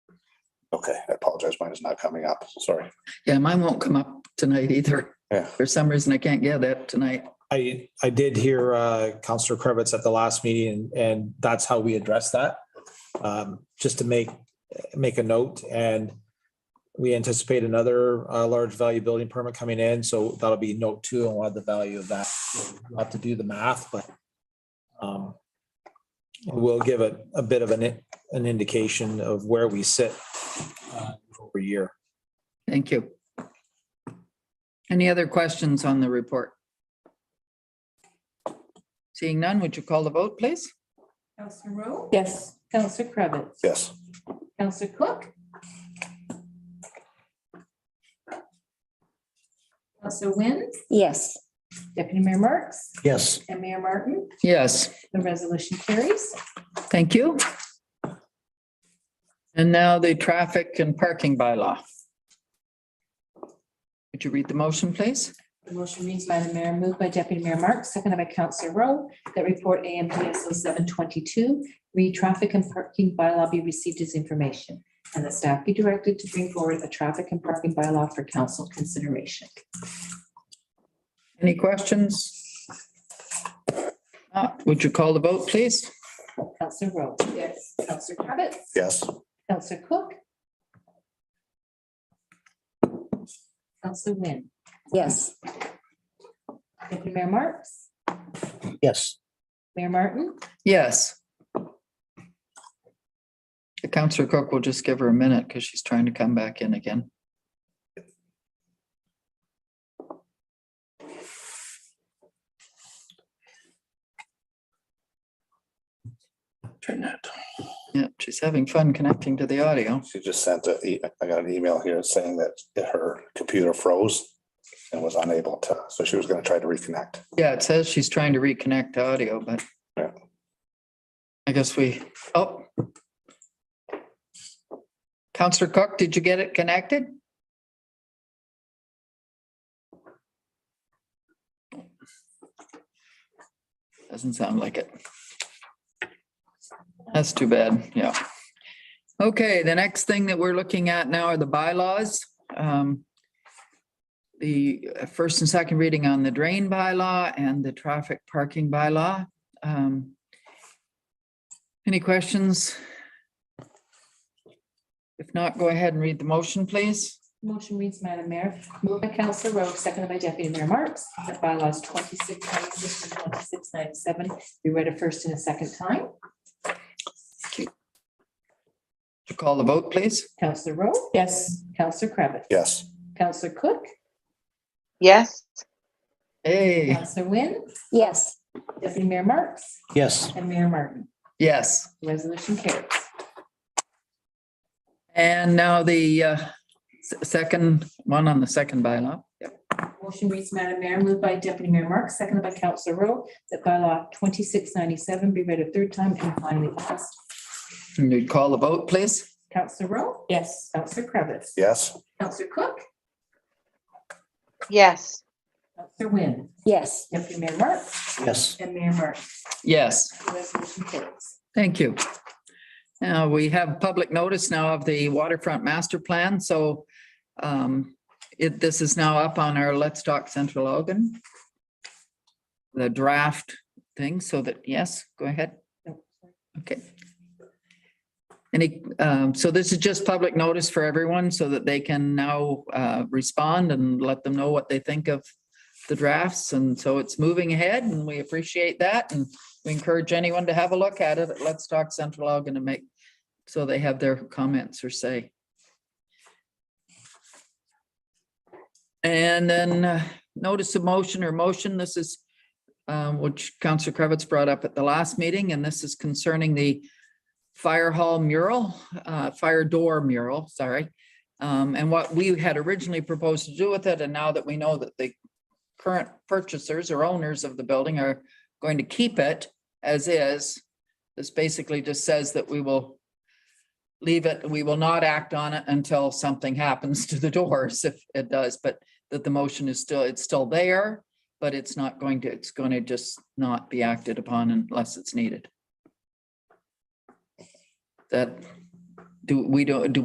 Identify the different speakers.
Speaker 1: Okay, I apologize. Mine is not coming up. Sorry.
Speaker 2: Yeah, mine won't come up tonight either.
Speaker 1: Yeah.
Speaker 2: For some reason, I can't get that tonight.
Speaker 3: I, I did hear uh, Counselor Krebitz at the last meeting, and- and that's how we addressed that. Um, Just to make, make a note, and we anticipate another uh, large value building permit coming in, so that'll be note two and what the value of that. We'll Have to do the math, but um, we'll give it a bit of an, i- an indication of where we sit uh, over a year.
Speaker 2: Thank you. Any other questions on the report? Seeing none, would you call the vote, please?
Speaker 4: Counselor Rowe?
Speaker 5: Yes.
Speaker 4: Counselor Cravitz?
Speaker 1: Yes.
Speaker 4: Counselor Cook? Counselor Wynn?
Speaker 5: Yes.
Speaker 4: Deputy Mayor Marks?
Speaker 6: yes,
Speaker 4: And Mayor Martin?
Speaker 2: Yes,
Speaker 4: The resolution carries.
Speaker 2: thank you. And now the traffic and parking bylaw. Would you read the motion, please?
Speaker 4: The motion reads, Madam Mayor, moved by Deputy Mayor Marks, seconded by Counselor Rowe, that report AMPSO seven twenty-two, read traffic and parking bylaw be received as information, and the staff be directed to bring forward a traffic and parking bylaw for council consideration.
Speaker 2: Any questions? Uh, Would you call the vote, please?
Speaker 4: Counselor Rowe? Yes. Counselor Cravitz?
Speaker 1: Yes.
Speaker 4: Counselor Cook? Counselor Wynn?
Speaker 5: Yes.
Speaker 4: Deputy Mayor Marks?
Speaker 6: yes,
Speaker 4: Mayor Martin?
Speaker 2: Yes. The Counselor Cook will just give her a minute because she's trying to come back in again.
Speaker 1: Turn that.
Speaker 2: Yeah, she's having fun connecting to the audio.
Speaker 1: She just sent a, e- I got an email here saying that her computer froze and was unable to, so she was gonna try to reconnect.
Speaker 2: Yeah, it says she's trying to reconnect to audio, but
Speaker 1: Yeah.
Speaker 2: I guess we, oh. Counselor Cook, did you get it connected? Doesn't sound like it. That's too bad, yeah. Okay, the next thing that we're looking at now are the bylaws. Um, the uh, first and second reading on the drain bylaw and the traffic parking bylaw. Um, Any questions? If not, go ahead and read the motion, please.
Speaker 4: Motion reads, Madam Mayor, moved by Counselor Rowe, seconded by Deputy Mayor Marks, that bylaws twenty-six ninety-six and twenty-six ninety-seven be read a first and a second time.
Speaker 2: To call the vote, please.
Speaker 4: Counselor Rowe? Yes. Counselor Kravitz.
Speaker 1: Yes.
Speaker 4: Counselor Cook?
Speaker 7: yes,
Speaker 2: Hey,
Speaker 4: Counselor Wynn?
Speaker 5: Yes.
Speaker 4: Deputy Mayor Marks?
Speaker 6: yes,
Speaker 4: And Mayor Martin?
Speaker 2: yes.
Speaker 4: Resolution carries.
Speaker 2: And now the uh, s- second one on the second bylaw.
Speaker 4: Motion reads, Madam Mayor, moved by Deputy Mayor Marks, seconded by Counselor Rowe, that bylaw twenty-six ninety-seven be read a third time and finally passed.
Speaker 2: And you'd call the vote, please.
Speaker 4: Counselor Rowe? Yes. Counselor Krebitz.
Speaker 1: Yes.
Speaker 4: Counselor Cook?
Speaker 7: yes,
Speaker 4: Counselor Wynn?
Speaker 5: Yes.
Speaker 4: Deputy Mayor Marks?
Speaker 6: yes,
Speaker 4: And Mayor Martin.
Speaker 2: Yes.
Speaker 4: Resolution carries.
Speaker 2: Thank you. Now, we have public notice now of the waterfront master plan, so um, it, this is now up on our Let's Talk Central Oregon. The draft thing, so that, yes, go ahead. Okay. Any, um, so this is just public notice for everyone so that they can now uh, respond and let them know what they think of the drafts. And so it's moving ahead and we appreciate that and we encourage anyone to have a look at it. at Let's talk Central Ogden and make, so they have their comments or say. And then uh, notice of motion or motion, this is um, which Counselor Kravitz brought up at the last meeting, and this is concerning the fire hall mural, uh, fire door mural, sorry. Um, and what we had originally proposed to do with it, and now that we know that the current purchasers or owners of the building are going to keep it as is. This basically just says that we will leave it, we will not act on it until something happens to the doors, if it does, but that the motion is still, it's still there, but it's not going to, it's going to just not be acted upon unless it's needed. That, do, we don't, do